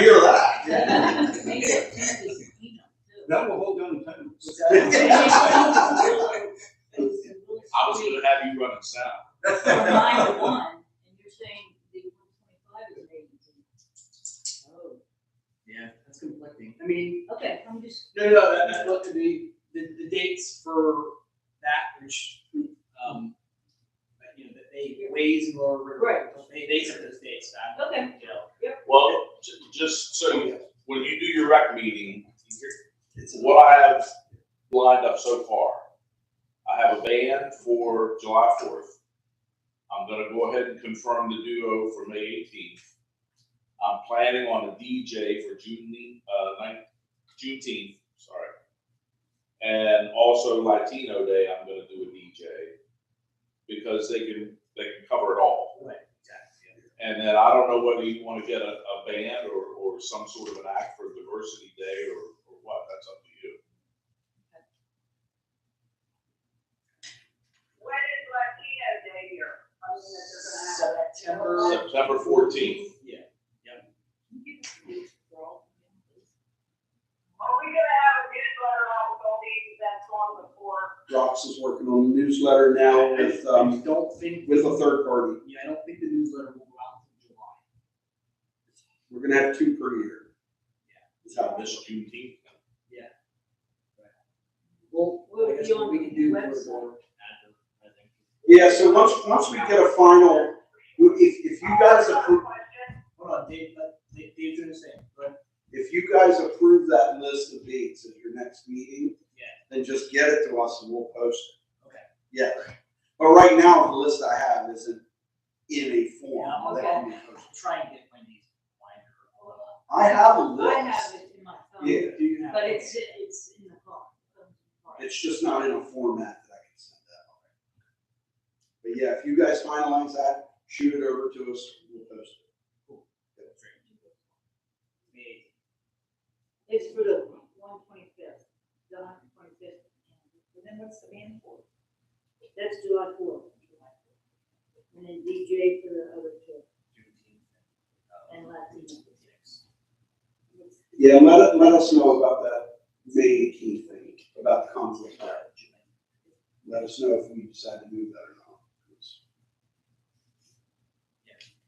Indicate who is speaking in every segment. Speaker 1: Yeah, that's conflicting. I mean,
Speaker 2: Oh. Okay, I'm just,
Speaker 1: no, no, no, that- that's what the, the, the dates for that, which, um, but, you know, that they ways and lower. river,
Speaker 2: Right.
Speaker 1: They, they set those dates back.
Speaker 2: Okay.
Speaker 1: You know,
Speaker 3: Well, ju- just so, when you do your rec meeting, what I have lined up so far, I have a band for July fourth. I'm gonna go ahead and confirm the duo for May eighteenth. I'm planning on a DJ for June, uh, ninth, Juneteenth, sorry. And also Latino Day, I'm gonna do a DJ, because they can, they can cover it all.
Speaker 1: Right, exactly.
Speaker 3: And then I don't know whether you want to get a, a band or, or some sort of an act for diversity day or, or what, that's up to you.
Speaker 4: When is Latino Day here? I mean, that they're gonna have that.
Speaker 1: September.
Speaker 3: September fourteenth,
Speaker 1: Yeah,
Speaker 4: Are we gonna have a newsletter out with all these that's on before?
Speaker 5: Rox is working on a newsletter now with,
Speaker 1: I
Speaker 5: um,
Speaker 1: don't think,
Speaker 5: with a third party.
Speaker 1: yeah, I don't think the newsletter will go out until July.
Speaker 5: We're gonna have two per year.
Speaker 3: is that this Juneteenth?
Speaker 1: Well,
Speaker 2: Will
Speaker 1: I guess
Speaker 2: it be
Speaker 1: what
Speaker 2: on
Speaker 1: we can do
Speaker 2: the website?
Speaker 1: is more advert, I think.
Speaker 5: Yeah, so once, once we get a final, if, if you guys approve,
Speaker 4: Question,
Speaker 1: Hold on, Dave, let, Dave, Dave's doing the same, but
Speaker 5: if you guys approve that list of dates at your next meeting,
Speaker 1: Yeah.
Speaker 5: then just get it to us and we'll post it.
Speaker 1: Okay.
Speaker 5: Yeah, but right now, the list I have isn't in a form that can be posted.
Speaker 1: I'll try and get my knees wider or whatever.
Speaker 5: I have a list.
Speaker 2: I have it in my phone,
Speaker 5: Yeah,
Speaker 1: Do you have?
Speaker 2: but it's, it's in the car.
Speaker 5: It's just not in a format that I can send that out. But yeah, if you guys finalize that, shoot it over to us, we'll post it.
Speaker 1: Me.
Speaker 2: It's for the one twenty-fifth, July twenty-fifth. And then what's the band for? That's July fourth. And then DJ for the other two and Latino.
Speaker 5: Yeah, let, it- let us know about that May eighteenth thing, about the conflict there. Let us know if we decide to move that or not.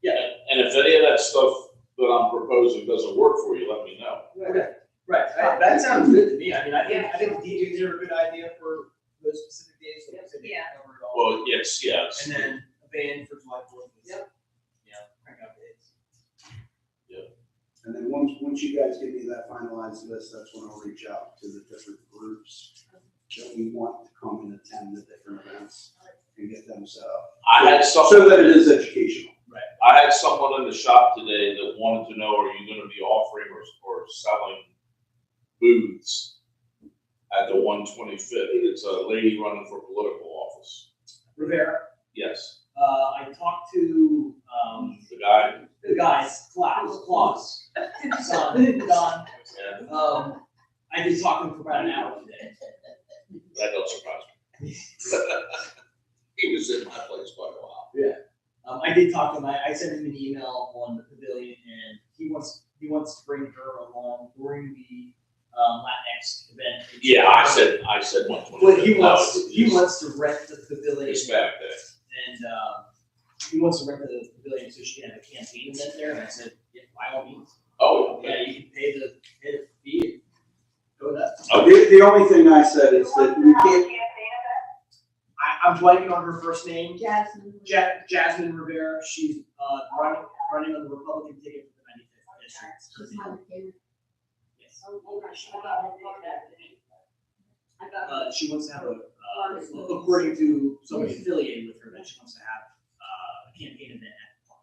Speaker 3: Yeah, and and if any of that stuff that I'm proposing doesn't work for you, let me know.
Speaker 1: Right, right, that- that sounds good to me, I mean, I think, I think DJs are a good idea for those specific days, like I said, they
Speaker 2: Yeah.
Speaker 1: cover it all.
Speaker 3: Well, yes, yes.
Speaker 1: And then a band for July fourth.
Speaker 2: Yep.
Speaker 1: Yeah, crank out dates.
Speaker 5: And then once, once you guys give me that finalized list, that's when I'll reach out to the different groups that we want to come and attend the different events and get them set up.
Speaker 3: I had
Speaker 5: So that
Speaker 3: someone,
Speaker 5: it is educational.
Speaker 3: I had someone in the shop today that wanted to know, are you gonna be offering or, or selling booths at the one twenty-fifth? It's a lady running for political office.
Speaker 1: Rivera,
Speaker 3: Yes,
Speaker 1: uh, I talked to, um,
Speaker 3: the guy,
Speaker 1: the guys, Klaus, Klaus, son, Don,
Speaker 3: yeah,
Speaker 1: um, I did talk to him for about an hour today.
Speaker 3: that don't surprise me. He was in my place quite a while.
Speaker 1: Um, I did talk to him. I, I sent him an email on the pavilion, and he wants he wants to bring her along during the um, Latinx event.
Speaker 3: Yeah, I said, I said one twenty.
Speaker 1: But he wants to, he wants to rent the pavilion,
Speaker 3: It's back there.
Speaker 1: and um, he wants to rent the pavilion so she can have a campaign event there. And I said, yeah, by all means,
Speaker 3: Oh,
Speaker 1: yeah,
Speaker 3: okay.
Speaker 1: you can pay the pay the fee and go nuts.
Speaker 3: Okay.
Speaker 5: Uh, The, the only thing I said is that we can't,
Speaker 4: Campaign event?
Speaker 1: I, I'm blanking on her first name.
Speaker 2: Jasmine.
Speaker 1: Ja- Jasmine Rivera. She's uh, running running on the Republican ticket for the 95th district. Her name- Yes.
Speaker 2: Oh, I got
Speaker 1: uh, she wants to have a, uh, according to somebody affiliated with her, that she wants to have, uh, a campaign event at the park.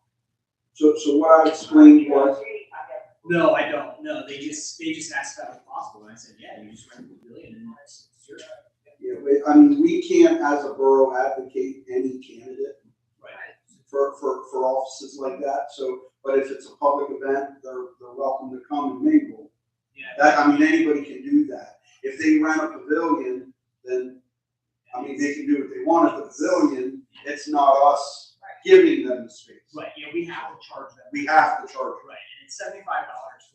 Speaker 5: so, so what I explained was,
Speaker 4: I guess.
Speaker 1: No, I don't, no, they just, they just asked if that was possible, and I said, yeah, you just rent a pavilion and that's, it's your,
Speaker 5: you know, we- I mean, we can't as a borough advocate any candidate
Speaker 1: right?
Speaker 5: for, for, for offices like that, so, but if it's a public event, they're, they're welcome to come and mingle.
Speaker 1: Yeah,
Speaker 5: That, I mean, anybody can do that. If they rent a pavilion, then, I mean, they can do what they want at the pavilion, it's not us giving them the space.
Speaker 1: right, yeah, we have to charge them,
Speaker 5: We have to charge.
Speaker 1: right, and it's seventy-five dollars